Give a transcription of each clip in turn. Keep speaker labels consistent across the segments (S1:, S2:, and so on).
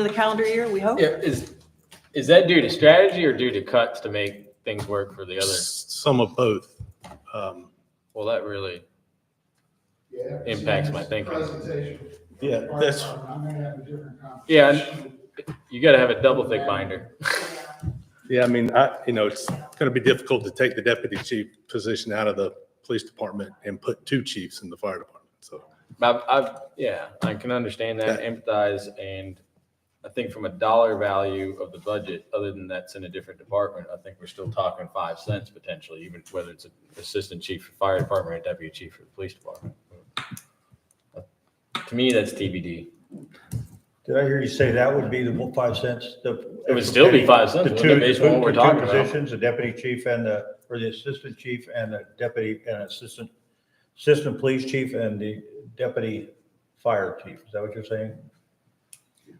S1: of the calendar year, we hope.
S2: Yeah, is, is that due to strategy or due to cuts to make things work for the other?
S3: Some of both. Um,
S2: Well, that really,
S4: Yeah.
S2: Impacts my thinking.
S4: Presentation.
S3: Yeah, that's-
S4: I may have a different conversation.
S2: Yeah, and- you gotta have a double thick binder.
S3: Yeah, I mean, I, you know, it's going to be difficult to take the deputy chief position out of the police department and put two chiefs in the fire department. So,
S2: I've, I've, yeah, I can understand that, empathize, and I think from a dollar value of the budget, other than that's in a different department, I think we're still talking five cents potentially, even whether it's an assistant chief for fire department or deputy chief for the police department. uh, To me, that's TBD.
S5: Did I hear you say that would be the five cents? the-
S2: It would still be five cents,
S5: The
S2: wouldn't it,
S5: two,
S2: based on what we're
S5: the two
S2: talking about?
S5: positions, the deputy chief and the, or the assistant chief and the deputy and assistant, assistant police chief and the deputy fire chief. Is that what you're saying?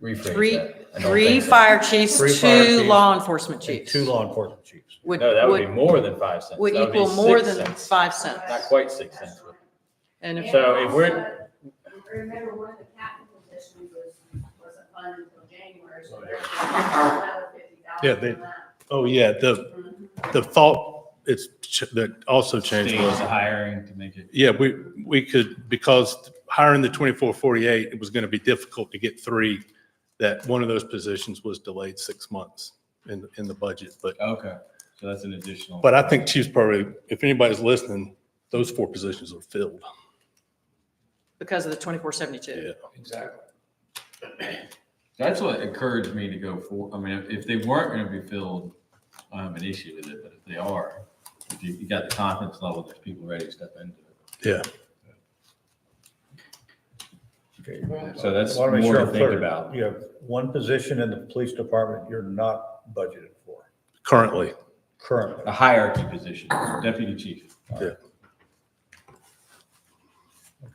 S2: Rephrase
S1: Three,
S2: that. I don't
S1: three
S2: think so.
S1: fire chiefs,
S5: Three fire
S1: two
S5: chiefs
S1: law enforcement
S5: And
S1: chiefs.
S5: Two law enforcement chiefs.
S1: Would,
S2: No, that would be
S1: would,
S2: more than five cents.
S1: would
S2: That be
S1: equal more
S2: six
S1: than
S2: cents.
S1: five cents.
S2: Not quite six cents. but-
S1: And if,
S2: So if we're-
S6: Also, Remember, one of the captain positions was, wasn't funded until January, so there's another fifty thousand.
S3: Yeah, they- oh yeah, the, the thought it's ch- that also changed
S7: stage
S3: was,
S7: the hiring to make it.
S3: yeah, we, we could, because hiring the 2448, it was going to be difficult to get three, that one of those positions was delayed six months in, in the budget. But
S7: Okay, so that's an additional.
S3: But I think Chief's probably, if anybody's listening, those four positions are filled.
S1: because of the twenty-four seventy-two.
S4: Exactly.
S7: That's what encouraged me to go for, I mean, if- if they weren't gonna be filled, I don't have an issue with it, but if they are, if you, you got the confidence level, there's people ready to step into it.
S3: Yeah.
S7: So that's
S5: I wanna make
S7: more
S5: sure
S7: to
S5: I'm
S7: think
S5: clear.
S7: about.
S5: You have one position in the police department you're not budgeted for
S3: Currently,
S5: currently.
S7: A hierarchy position, deputy chief.
S3: Yeah.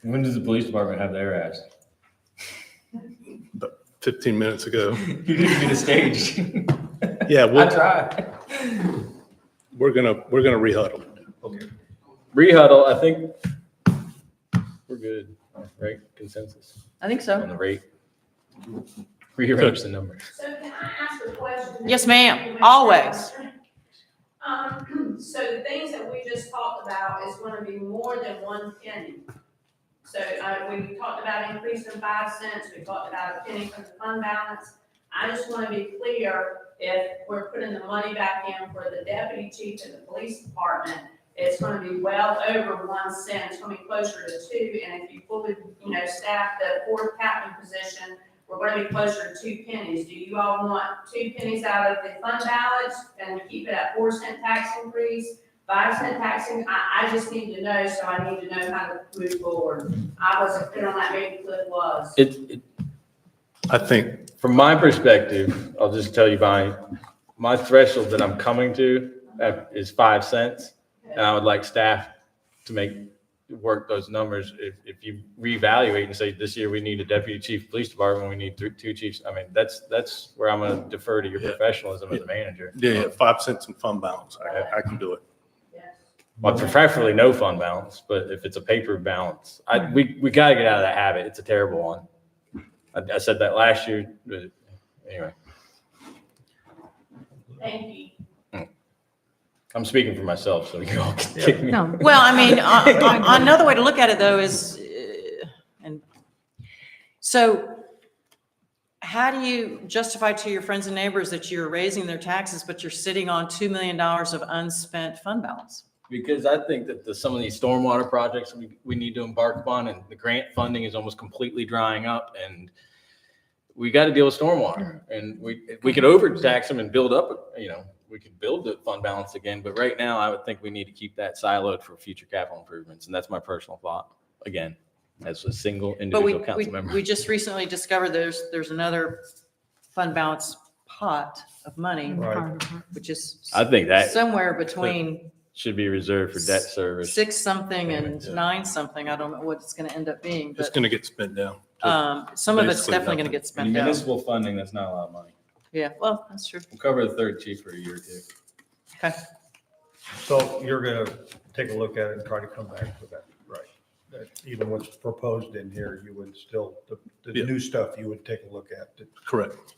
S7: When does the police department have their ass?
S3: 15 minutes ago.
S7: You didn't get a stage.
S3: Yeah,
S7: I
S3: we're,
S7: tried.
S3: we're gonna, we're gonna rehuddle.
S2: Rehuddle, I think we're good, right? Consensus
S1: I think
S2: on
S1: so.
S2: the rate. Rearrange the numbers.
S6: So can I ask a question?
S1: Yes, ma'am, always.
S6: Um, so the things that we just talked about is gonna be more than one penny. So, uh, we talked about increasing five cents, we talked about a penny from the fund balance. I just wanna be clear, if we're putting the money back in for the deputy chief and the police department, it's gonna be well over one cent, it's gonna be closer to two, and if you fully, you know, staff the fourth captain position, we're gonna be closer to two pennies. Do you all want two pennies out of the fund balance and keep it at four cent tax increase? Five cent taxing, I, I just need to know, so I need to know how to move forward. I wasn't clear on that, maybe Cliff was.
S2: It, it-
S3: I think,
S2: from my perspective, I'll just tell you my, my threshold that I'm coming to uh, is five cents. And I would like staff to make, work those numbers. If, if you reevaluate and say, this year we need a deputy chief, police department, we need three, two chiefs. I mean, that's, that's where I'm gonna defer to your
S3: Yeah.
S2: professionalism as a manager.
S3: yeah, yeah, five cents in fund balance. I, I can do it.
S6: Yes.
S2: Well, preferably no fund balance, but if it's a paper balance, I, we, we gotta get out of that habit. It's a terrible one. I, I said that last year, but anyway,
S6: Thank you.
S2: I'm speaking for myself, so you all can kick me.
S8: No.
S1: Well, I mean, uh, uh, another way to look at it though is, uh, and so how do you justify to your friends and neighbors that you're raising their taxes, but you're sitting on $2 million of unspent fund balance?
S2: Because I think that the, some of these stormwater projects we, we need to embark upon and the grant funding is almost completely drying up and we got to deal with stormwater
S1: Mm-hmm.
S2: and we, we could overtax them and build up, you know, we could build the fund balance again. But right now I would think we need to keep that siloed for future capital improvements. And that's my personal thought, again, as a single
S1: But we,
S2: individual
S1: we,
S2: council member.
S1: we just recently discovered there's, there's another fund balance pot of money,
S5: Right.
S1: which is
S2: I think that
S1: somewhere between
S2: should be reserved for debt service.
S1: six something and
S2: Yeah.
S1: nine something. I don't know what it's gonna end up being,
S3: It's
S1: but,
S3: gonna get spent down.
S1: um, some of it's
S3: basically
S1: definitely gonna
S3: nothing.
S1: get spent out.
S7: Municipal funding, that's not a lot of money.
S1: Yeah, well, that's true.
S7: We'll cover the third chief for a year or two.
S1: Okay.
S5: So you're gonna take a look at it and try to come back with that, right? That Even what's proposed in here, you would still, the, the
S3: Yeah.
S5: new stuff you would take a look at to
S3: Correct.